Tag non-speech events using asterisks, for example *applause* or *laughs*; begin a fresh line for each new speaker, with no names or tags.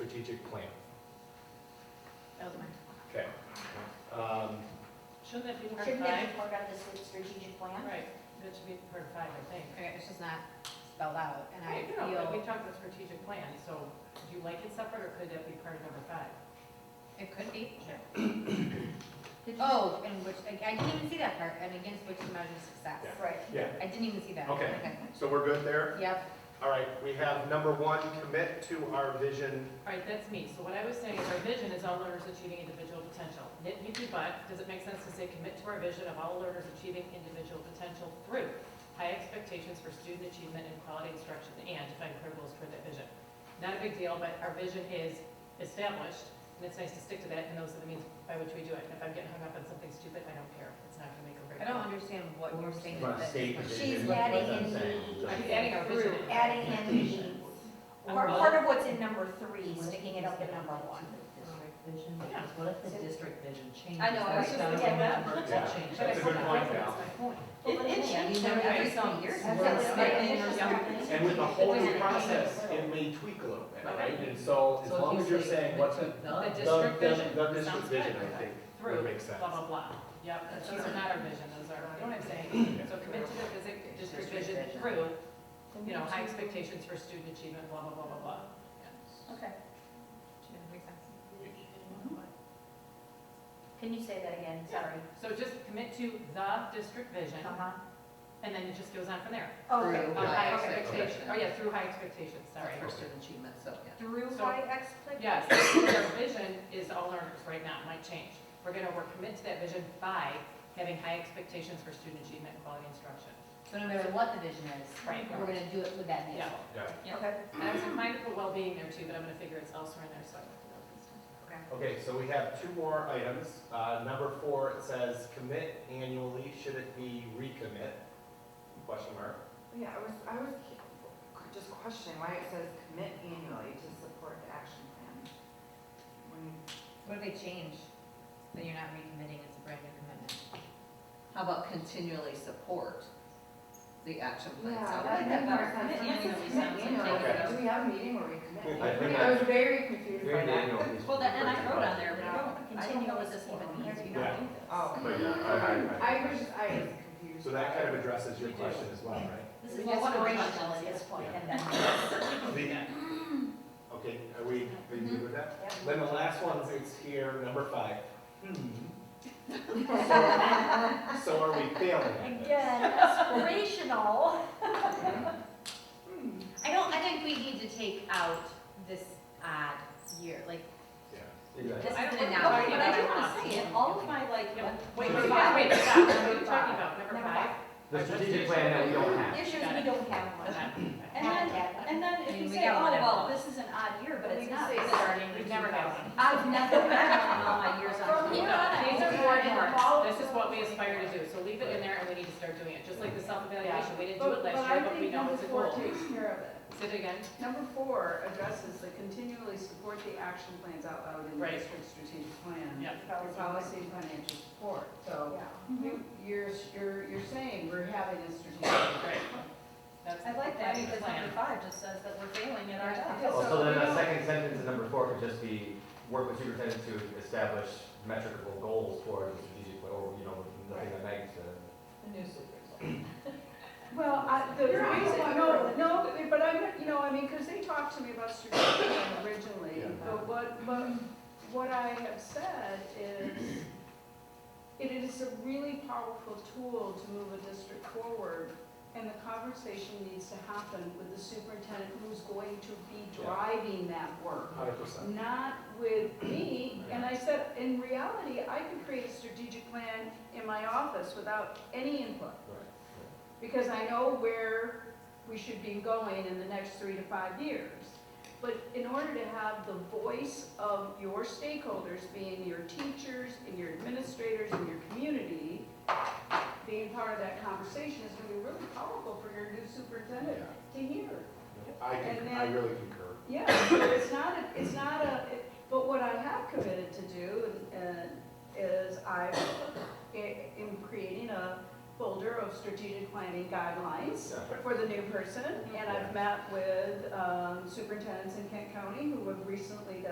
strategic plan.
That was mine.
Okay. Um,
Shouldn't that be part
Shouldn't that
five?
be part of this strategic plan?
Right, that should be part five, I think.
Okay, it's just not spelled out, and I
Right, no, but we
feel
talked about strategic plan, so do you like it separate, or could that be part of number five?
it could be.
Sure.
*coughs*
Did you-
Oh, and which, like, I didn't even see that part, and against which to measure success.
Yeah.
Right.
Yeah,
I didn't even see that.
Okay. so we're good there?
Yep,
All right, we have number one, commit to our vision.
All right, that's me. So what I was saying is our vision is all learners achieving individual potential. Nitpicky, but does it make sense to say commit to our vision of all learners achieving individual potential through high expectations for student achievement and quality instruction and define principles toward that vision? Not a big deal, but our vision is established, and it's nice to stick to that, and those are the means by which we do it. If I'm getting hung up on something stupid, I don't care. It's not gonna make a break.
I don't understand what you're saying.
Right,
but-
state position.
She's
That's
adding
what I'm
in
saying.
the-
I'm adding our vision. in.
Adding in the, or part of what's in number three, sticking it up in number one.
District vision,
Yeah.
because what if the district vision changes?
I know, I was
That's
just
gotta
thinking
be
that.
numbered to
Yeah.
change.
But I
That's a good
forgot.
point, Val.
That's my point.
It- it
Yeah, you
changed
never-
every
every
three
some-
years.
some
That's
words
what
say
I'm
in or
saying.
something.
And with the whole new
Wait a minute.
process, it may tweak a little bit, right?
Okay.
And so as
So if
long
you
as you're
say
saying what's
the-
the,
The
the-
the,
district vision.
the
Sounds
district
good.
vision, I think,
Through,
would make sense.
blah, blah, blah. Yep, those are not our vision, those are, you know what I'm saying? So commit to the physic, district vision through, you know, high expectations for student achievement, blah, blah, blah, blah, blah.
Okay. Yeah, makes sense.
Can you say that again, sorry?
So just commit to the district vision,
Uh-huh.
and then it just goes on from there.
Oh, Okay.
Through
On high
high
expectations,
expectations.
oh yeah, through high expectations, sorry.
Sorry, for student achievement, so, yeah.
Through
So-
high expectations.
Yes, their vision is all learners right now, it might change. We're gonna, we're committed to that vision by having high expectations for student achievement and quality instruction.
So no matter what the vision is,
Right.
we're gonna do it with that vision.
Yeah.
Yeah.
Okay.
And I was inclined to put well-being there too, but I'm gonna figure it's elsewhere in there, so I left it out this time.
Okay, so we have two more items. Uh, number four, it says commit annually, should it be recommit? Question mark.
Yeah, I was, I was just questioning why it says commit annually to support the action plan. When,
What if they change? Then you're not recommitting, it's a brand new commitment.
How about continually support the action plan?
yeah,
So-
that would make more sense.
Commit annually
Commit
sounds-
Okay.
annually, do we have a meeting where we commit?
I think
annually? I was very confused by that.
Well, that, and I wrote on there,
but I
don't,
I don't know what this even means.
We
don't
do this.
Oh.
But yeah, I- I-
I was, I was confused.
So that kind of addresses your
We do.
question as well, right?
This is
We just go
inspirational at this point, and then.
The- Mm. Okay, are we, are you good with that?
Mm-hmm.
Then the last one is here, number five. Hmm. *laughs* So so are we failing at this?
Again, *laughs* inspirational.
I don't, I think we need to take out this odd year, like,
Yeah, exactly.
this is
I
an
don't-
analogy.
okay,
but I do wanna say it, all of my, like,
Yeah, Wait,
So
wait,
five.
wait, stop, what are you talking about, number
Number
five?
The strategic plan that we don't have.
Issues we don't have one.
And
Not
then,
yet.
and then
I mean,
if you
we
say,
got
oh,
one
well,
envelope.
this is an odd year, but
But
it's not.
say
because
starting, we've never had one.
I've never, I've *laughs* done all my years on.
From
school.
here
These are board
Yeah.
works, this is what we aspire to do, so leave it in there and we need to start doing it, just like the self-evaluation, we didn't do it last year, but we know it's a
But
goal.
I think number four Mm-hmm. takes care of it.
Say it again,
Number four addresses the continually support the action plans out loud in the
Right.
district strategic plan.
yeah,
Your policy and financial support, so you- you're, you're, you're saying we're having a strategic.
right. That's
I like that
the
because
plan.
number five just says that we're failing at our job.
Oh,
Well, so then the second sentence in number four could just be, work with superintendent to establish metricable goals for the strategic, plan," or, you know, nothing that magnitude.
Well, I, the reason, no, no, but I'm, you know, I mean, because they talked to me about strategic plan originally,
Yeah.
but what, but what I have said is, it is a really powerful tool to move a district forward, and the conversation needs to happen with the superintendent who's going to be
Yeah.
driving that work
Hundred percent.
not with me. And I said, in reality, I could create a strategic plan in my office without any input. Because I know where we should be going in the next three to five years. But in order to have the voice of your stakeholders, being your teachers and your administrators and your community, being part of that conversation is gonna be really powerful for your new superintendent to hear.
I can,
And
I
then-
really concur.
Yeah, but it's not, a- it's not a, it- but what I have committed to do uh, is I am creating a folder of strategic planning guidelines for the new person, and I've met with um, superintendents in Kent County who have recently done